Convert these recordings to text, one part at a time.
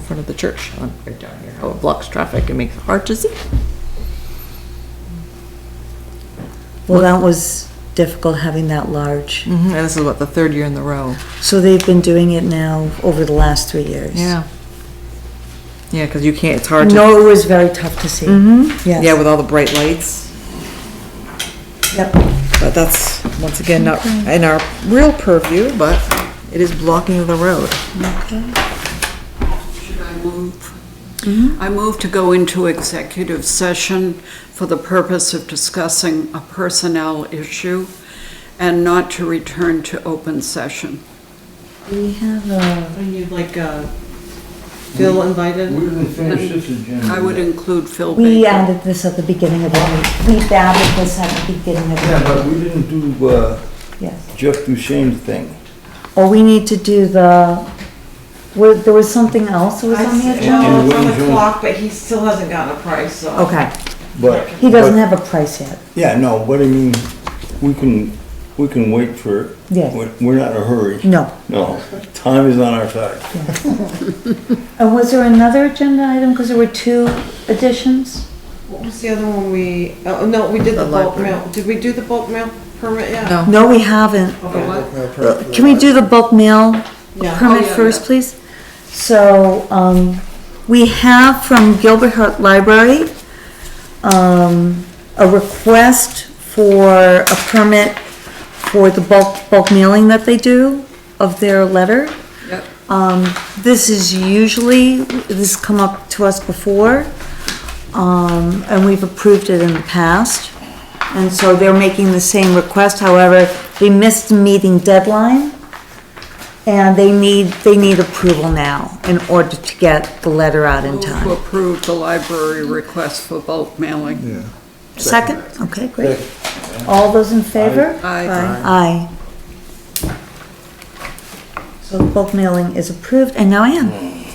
front of the church on, right down here, how it blocks traffic and makes it hard to see. Well, that was difficult having that large. hmm and this is what, the third year in the row? So they've been doing it now over the last three years. Yeah, because you can't, it's hard to. No, it was very tough to see. Mm-hmm. Yeah, Yes. with all the bright lights, Yep. but that's, once again, not in our real purview, but it is blocking the road. Should I move? Mm-hmm. I move to go into executive session for the purpose of discussing a personnel issue and not to return to open session. We have a, And you'd like, uh, Phil invited? We didn't finish this agenda. I would include Phil we Baker. added this at the beginning of the week. We added this at the beginning of Yeah, the but we didn't do uh, week, yes. Jeff Duchesne's thing. Or we need to do the, were- there was something else that was I on the said, agenda? no, And it's on Wayne's the room. clock, but he still hasn't gotten a price, so. Okay, But he doesn't but- have a price yet. Yeah, no, but I mean, we can, we can wait for. it. Yeah. We're we're not in a hurry. No. No, time is on our side. And was there another agenda item? Because there were two additions? What was the other one we, oh, no, we did The the bulk library. mail. Did we do the bulk mail permit yet? No. No, we haven't. Okay. Can we do the bulk mail Yeah. permit Oh, yeah, first, yeah. please? So, um, we have from Gilbert Hart Library, um, a request for a permit for the bulk, bulk mailing that they do of their letter. Yep. Um, this is usually, this has come up to us before, um, and we've approved it in the past. And so they're making the same request, however, they missed the meeting deadline. And they need, they need approval now in order to get the letter out in Move to time. approve the library request for bulk mailing. Second? Okay, great. All those in favor? Aye. Aye. So bulk mailing is approved, and now I am.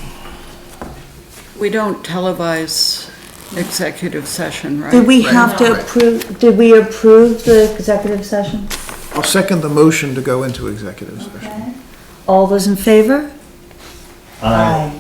We don't televise executive session, right? Did we have to approve, did we approve the executive session? I'll second the motion to go into executive session. All those in favor? Aye.